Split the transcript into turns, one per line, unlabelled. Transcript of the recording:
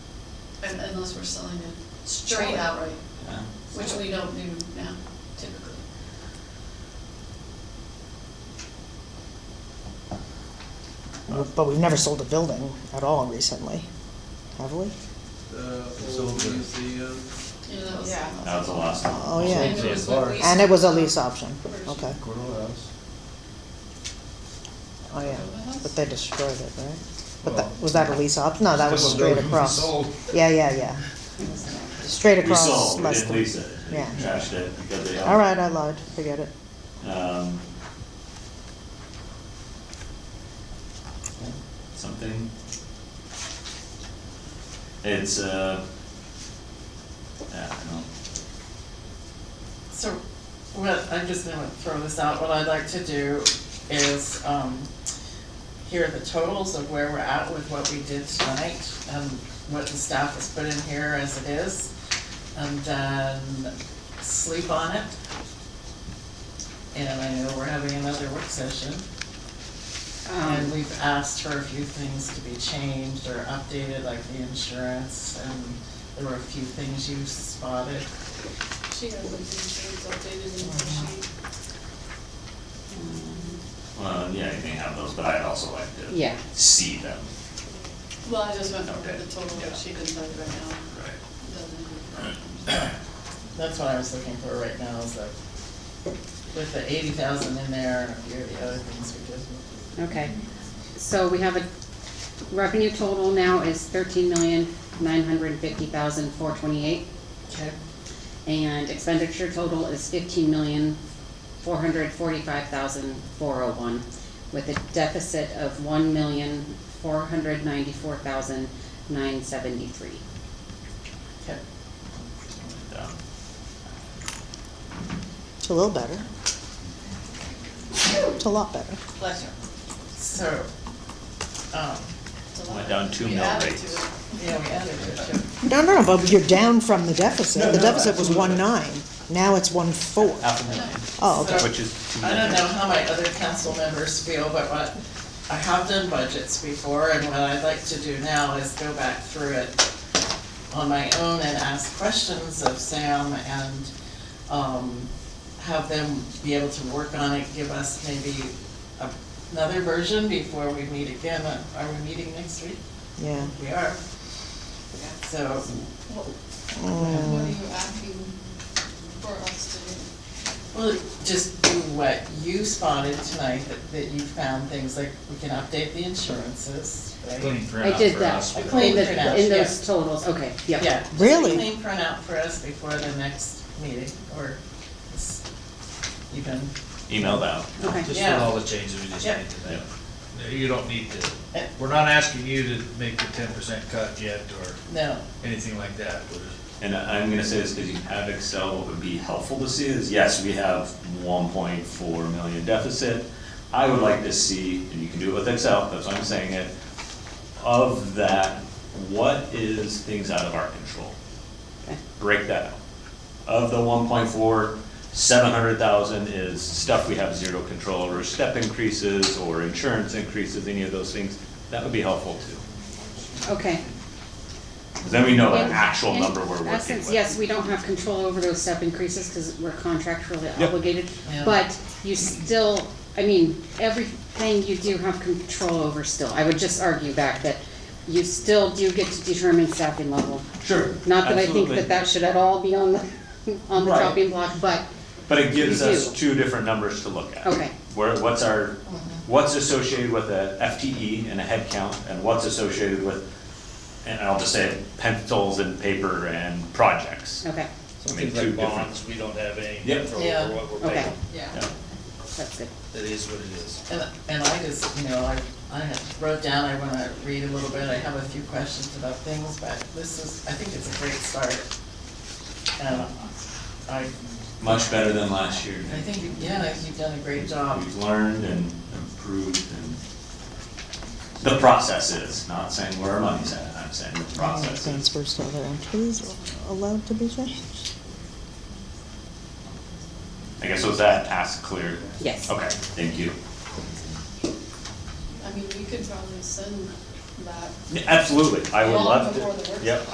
un- unless we're selling it straight outright,
Yeah.
which we don't do now typically.
But we've never sold a building at all recently, have we?
The old museum.
You know, that was.
Yeah.
That was the last one.
Oh, yeah.
And it was
Yeah.
with lease-
And it was a lease option,
Version.
okay,
Cordell House.
oh, yeah, but they destroyed it, right? But
Well-
that, was that a lease option? No, that was
Still a
straight
building.
across.
Sold.
Yeah, yeah, yeah. Straight
We
across.
sold, we
less
didn't
than-
lease it. We
Yeah.
Trashed it because they.
All right, uh, I lied, forget it.
Um, Something. It's, uh, yeah, I don't know.
So, what, I'm just gonna throw this out, what I'd like to do is, um, hear the totals of where we're at with what we did tonight, and what the staff has put in here as it is, and then sleep on it. And I know we're having another work session, and we've asked for a few things to be changed or updated, like the insurance, and there were a few things you spotted.
She has the insurance updated in her sheet.
Well, yeah, you may have those, but I'd also like to.
Yeah.
See them.
Well, I just went over the
Okay.
total,
Yeah.
but she didn't tell you right now.
Right.
Doesn't-
That's what I was looking for right now, is like, with the eighty thousand in there, and a few of the other things we did.
Okay, so we have a revenue total now is thirteen million, nine hundred fifty thousand, four twenty-eight.
Okay.
And expenditure total is fifteen million, four hundred forty-five thousand, four oh one, with a deficit of one million, four hundred ninety-four thousand, nine seventy-three.
Okay.
Done.
It's a little better. It's a lot better.
Bless her.
So, um,
It's a lot.
Went down two
We
mil
added to
rates.
it.
yeah, we added it, too.
No, no, but you're down from the deficit.
No,
The
no,
deficit was one
absolutely.
nine, now it's one four.
Half a million,
Oh, okay.
which is two
I
million.
don't know how my other council members feel, but what, I have done budgets before, and what I'd like to do now is go back through it on my own and ask questions of Sam and, um, have them be able to work on it, give us maybe a- another version before we meet again. Are we meeting next week?
Yeah.
We are. So,
What what are
Mm.
you asking for us to do?
well, just do what you spotted tonight, that, that you found things like, we can update the insurances, right?
I did that,
A
in
clean
the,
printout,
in
yeah.
those totals, okay, yep.
Yeah. just
Really?
a Clean printout for us before the next meeting, or s- even,
Email that.
Okay.
Just
Yeah.
with all the changes we just
Yeah.
made today. No, You don't need to,
Eh.
we're not asking you to make the ten percent cut yet or
no,
anything like that. We're just-
And I'm gonna say this because you have Excel, what would be helpful to see is, yes, we have one point four million deficit. I would like to see, and you can do it with Excel, that's why I'm saying it, of that, what is things out of our control?
Okay.
Break that out. Of the one point four, seven hundred thousand is stuff we have zero control over, step increases or insurance increases, any of those things. That would be helpful too.
Okay.
'Cause Then we know the
In-
actual
in
number we're working with.
essence, Yes, we don't have control over those step increases because we're contractually
Yep.
obligated.
Yeah.
But you still, I mean, everything you do have control over still. I would just argue back that you still do get to determine staffing level.
Sure.
Not that I think
absolutely.
that that should at all be on the, on the
Right.
chopping block, but,
But it gives
You
us
do.
two different numbers to look at.
Okay.
Where, what's our, what's associated with a FTE and a head count, and what's associated with, and I'll just say pencils and paper and projects.
okay,
Some
I mean,
things
two
like
different-
bonds, we don't have any
Yep.
control
Yeah.
over what we're
Okay.
paying.
Yeah.
that's good.
That is what it is.
and, and I just, you know, I, I had wrote down, I wanna read a little bit, I have a few questions about things, but this is, I think it's a great start. And I,
Much better than last year.
I think, um, yeah, you've done a great job.
We've learned and improved and the process is, not saying where our money's at, I'm saying the process is.
Transfer still there, and please allowed to be changed.
I guess was that task clear?
Yes.
Okay, thank you.
I mean, we could probably send that
Yeah, Absolutely, I would
Well,
love to.
before the work
Yep,